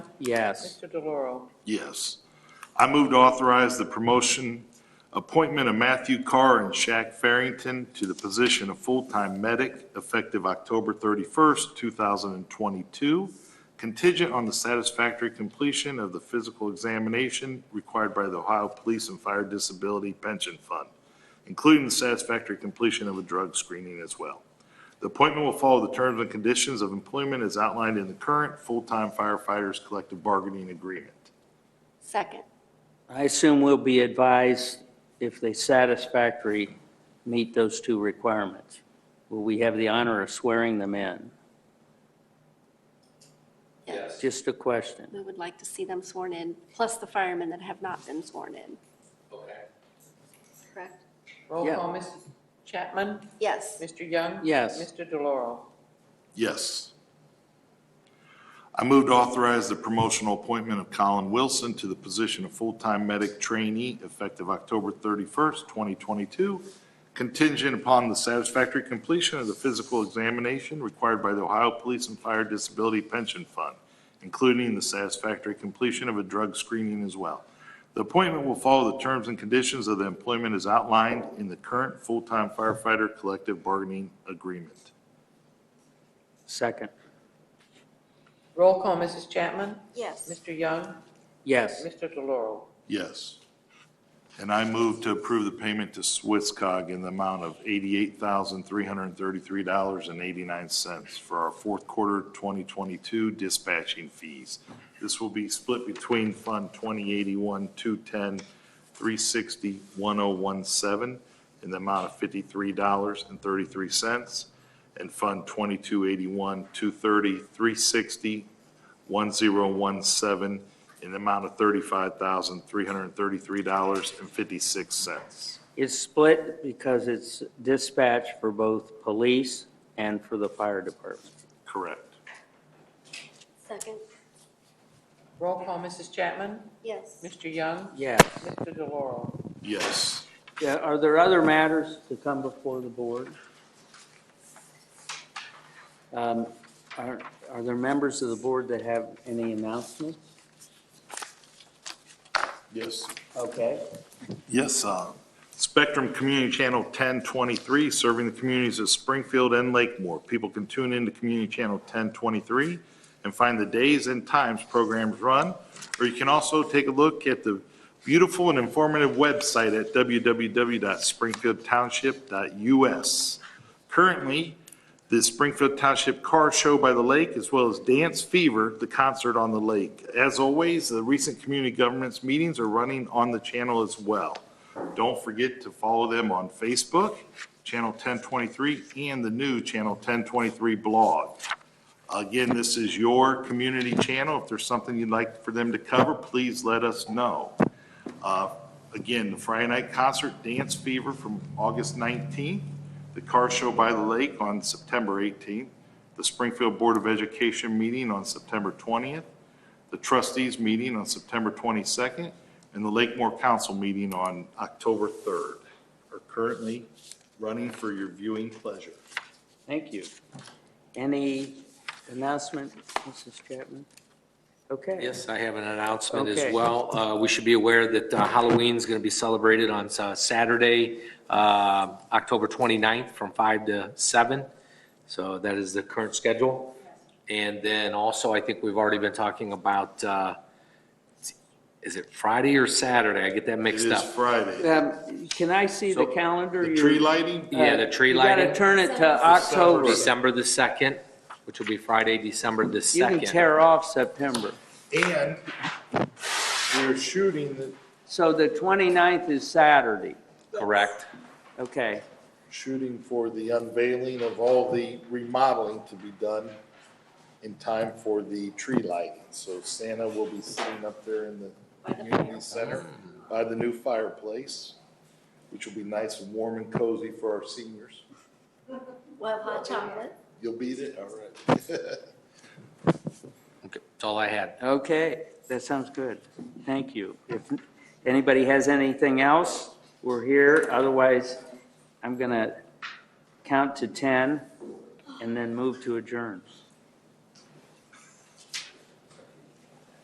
Yes. Mr. DeLauro. Yes. I move to authorize the promotion, appointment of Matthew Carr and Shaq Farrington to the position of full-time medic effective October 31st, 2022, contingent on the satisfactory completion of the physical examination required by the Ohio Police and Fire Disability Pension Fund, including the satisfactory completion of a drug screening as well. The appointment will follow the terms and conditions of employment as outlined in the current full-time firefighters collective bargaining agreement. Second. I assume we'll be advised if they satisfactory meet those two requirements. Will we have the honor of swearing them in? Yes. Just a question. We would like to see them sworn in, plus the firemen that have not been sworn in. Okay. Correct? Roll Yeah. call, Mrs. Chapman. Yes. Mr. Young. Yes. Mr. DeLauro. Yes. I move to authorize the promotional appointment of Colin Wilson to the position of full-time medic trainee effective October 31st, 2022, contingent upon the satisfactory completion of the physical examination required by the Ohio Police and Fire Disability Pension Fund, including the satisfactory completion of a drug screening as well. The appointment will follow the terms and conditions of the employment as outlined in the current full-time firefighter collective bargaining agreement. Second. Roll call, Mrs. Chapman. Yes. Mr. Young. Yes. Mr. DeLauro. Yes. And I move to approve the payment to Swisscog in the amount of $88,333.89 for our fourth quarter 2022 dispatching fees. This will be split between Fund 2081, 210, 360, 1017 in the amount of $53.33, and Fund 2281, 230, 360, 1017 in the amount of $35,333.56. It's split because it's dispatch for both police and for the fire department. Correct. Second. Roll call, Mrs. Chapman. Yes. Mr. Young. Yes. Mr. DeLauro. Yes. Yeah, Are there other matters to come before the board? Um, Are are there members of the board that have any announcements? Yes. Okay. Yes, uh, Spectrum Community Channel 1023, serving the communities of Springfield and Lakemore. People can tune into Community Channel 1023 and find the days and times programs run, or you can also take a look at the beautiful and informative website at www.springfieldtownship.us. Currently, the Springfield Township Car Show by the Lake, as well as Dance Fever, the concert on the lake. As always, the recent community governments meetings are running on the channel as well. Don't forget to follow them on Facebook, Channel 1023, and the new Channel 1023 blog. Again, this is your community channel. If there's something you'd like for them to cover, please let us know. Uh, Again, the Friday night concert, Dance Fever from August 19th, the car show by the lake on September 18th, the Springfield Board of Education meeting on September 20th, the trustees meeting on September 22nd, and the Lakemore Council meeting on October 3rd are currently running for your viewing pleasure. Thank you. Any announcement, Mrs. Chapman? Okay. Yes, I have an announcement as Okay. well. Uh, We should be aware that uh, Halloween's going to be celebrated on uh, Saturday, uh, October 29th, from 5 to 7. So that is the current schedule. And then also, I think we've already been talking about, uh, is it Friday or Saturday? I get that It mixed is up. Friday. Um, Can I see the So, calendar? The You- tree lighting? Yeah, the tree You lighting, gotta turn it to December. October. December the 2nd, which will be Friday, December the 2nd. You can tear off September. And we're shooting the, So the 29th is Saturday. Correct. Okay. shooting for the unveiling of all the remodeling to be done in time for the tree lighting. So Santa will be sitting up there in the community center by the new fireplace, which will be nice and warm and cozy for our seniors. Well, hot chocolate. You'll beat it, all right. Okay, That's all I had. Okay, that sounds good. Thank you. If anybody has anything else, we're here. Otherwise, I'm going to count to 10 and then move to adjourn.